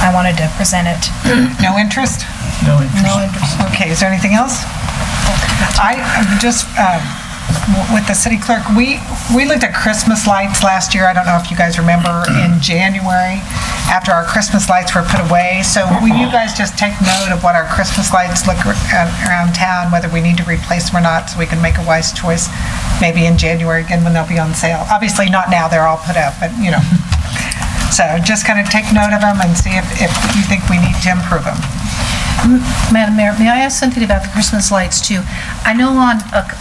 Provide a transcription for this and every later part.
I wanted to present it. No interest? No interest. No interest. Okay, is there anything else? I, I'm just, um, w- with the city clerk, we, we looked at Christmas lights last year, I don't know if you guys remember, in January, after our Christmas lights were put away. So will you guys just take note of what our Christmas lights look ar- uh, around town, whether we need to replace them or not, so we can make a wise choice, maybe in January again when they'll be on sale? Obviously, not now, they're all put up, but, you know. So just kind of take note of them and see if, if you think we need to improve them. Madam Mayor, may I ask something about the Christmas lights too? I know on a, c-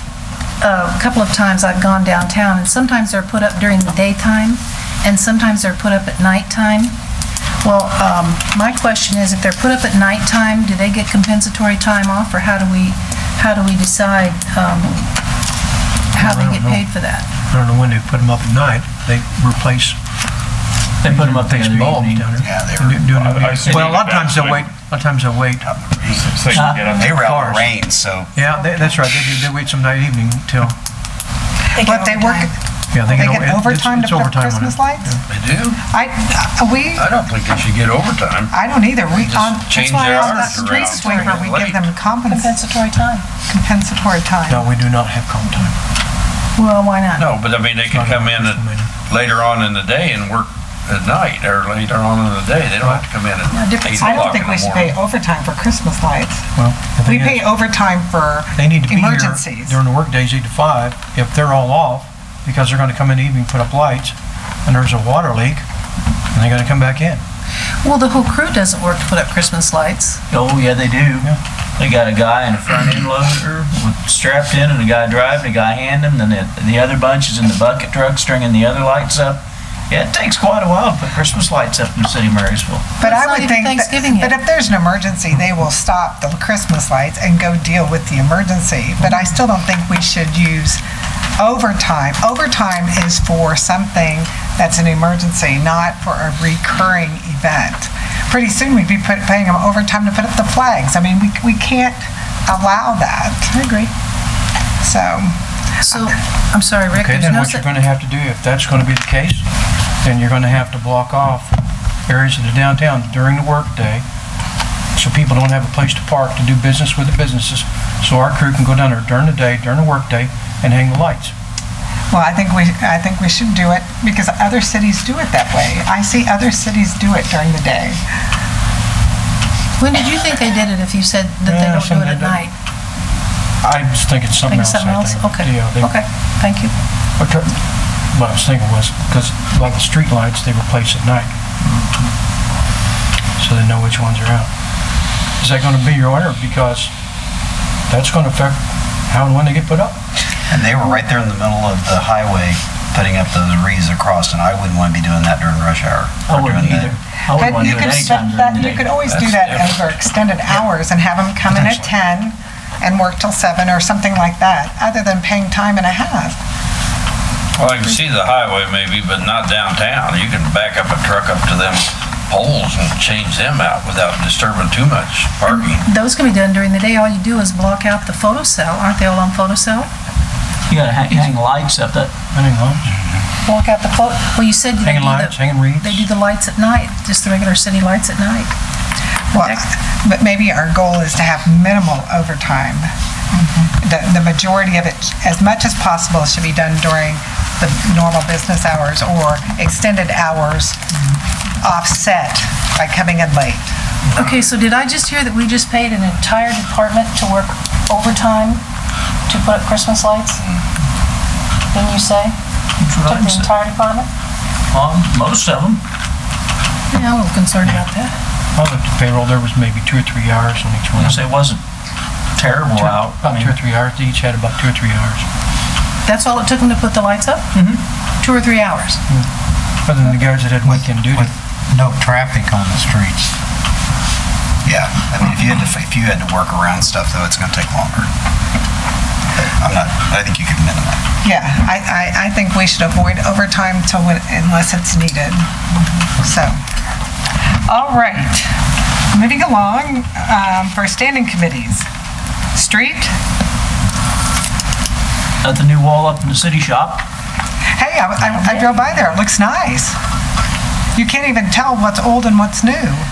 a couple of times I've gone downtown, and sometimes they're put up during the daytime, and sometimes they're put up at nighttime. Well, um, my question is, if they're put up at nighttime, do they get compensatory time off, or how do we, how do we decide, um, how they I don't get know. paid for that? I don't know when they put them up at night. They replace, They put them up the replace other bulbs evening. down there. Yeah, they Do- do- do- I- I see Well, a lot of that times they'll way. wait, a lot of times they'll wait. So you can get up They there. were Cars. out in the rain, so Yeah, they- that's right. They do, they wait some night evening till, But they work, yeah, they They get. get o- it's- overtime to it's put up overtime on it. Christmas lights? They do? I, uh, we, I don't think they should get overtime. I don't either. We, Just on, that's change why their on the hours street around. sweeper, we give them compens- Compensatory time? compensatory time. No, we do not have comp time. Well, why not? No, but I mean, they could come in at- later on in the day and work at night or later on in the day. They don't have to come in at eight I don't o'clock in think we the should pay morning. overtime for Christmas lights. Well, the We thing pay is, overtime for they need to be here emergencies. during the workdays, eight to five. If they're all off, because they're gonna come in the evening, put up lights, and there's a water leak, and they're gonna come back in. Well, the whole crew doesn't work to put up Christmas lights. Oh, yeah, they do. They got a guy in a front end loader with- strapped in and a guy driving, a guy handing, and then the- the other bunch is in the bucket truck stringing the other lights up. Yeah, it takes quite a while to put Christmas lights up in the city of Marysville. But It's I not would even think, that- Thanksgiving yet. but if there's an emergency, they will stop the Christmas lights and go deal with the emergency. But I still don't think we should use overtime. Overtime is for something that's an emergency, not for a recurring event. Pretty soon, we'd be put- paying them overtime to put up the flags. I mean, we we can't allow that. I agree. So, So, I'm sorry, Rick, Okay, there's then no what such... you're gonna have to do, if that's gonna be the case, then you're gonna have to block off areas of the downtown during the workday, so people don't have a place to park to do business with the businesses, so our crew can go down there during the day, during the workday, and hang the lights. well, I think we I think we should do it because other cities do it that way. I see other cities do it during the day. When did you think they did it if you said that they Yeah, don't do some it at did it. night? I just think it's something Think of else, something I else? think. Okay, Yeah, they- okay, thank you. What tr- what I was thinking was, because a lot of the street lights they replace at night, so they know which ones are out. Is that gonna be your order? Because that's gonna affect how and when they get put up. and they were right there in the middle of the highway putting up those wreaths across, and I wouldn't want to be doing that during rush hour. I or wouldn't during the- either. I wouldn't But want you to do it could, set that, anytime during the you day. could always do that over extended hours and have them come in at 10 and work till 7 or something like that, other than paying time and a half. Well, I can see the highway maybe, but not downtown. You can back up a truck up to them poles and change them out without disturbing too much parking. Those can be done during the day, all you do is block out the photo cell, aren't they all on photo cell? You gotta hang, hang lights up that, Hanging lights, Block out the photo, well, you said they do hanging lights, the, hanging reeds. they do the lights at night, just the regular city lights at night. Mm-hmm. Well, But maybe our goal is to have minimal overtime. Mm-hmm. The, the majority of it, as much as possible, should be done during the normal business hours or extended hours Mm-hmm. offset by coming in late. Okay, so did I just hear that we just paid an entire department to work overtime to put up Christmas lights? Didn't you say? Took the entire department? um, most of them. Yeah, I'm a little concerned about that. I looked at payroll, there was maybe two or three hours on each one. Unless it wasn't terrible out. I About mean, two or three hours, they each had about two or three hours. That's all it took them to put the lights up? Mm-hmm. Two or three hours? Other than the guys that had weekend duty. with no traffic on the streets. Yeah, I mean, if you had to, if you had to work around stuff, though, it's gonna take longer. But I'm not, I think you could minimize. Yeah, I, I, I think we should avoid overtime till when, unless it's needed. So, all right, moving along, um, for standing committees. Street, at the new wall up in the city shop, hey, I, I- I drove by there, it looks nice. You can't even tell what's old and what's new.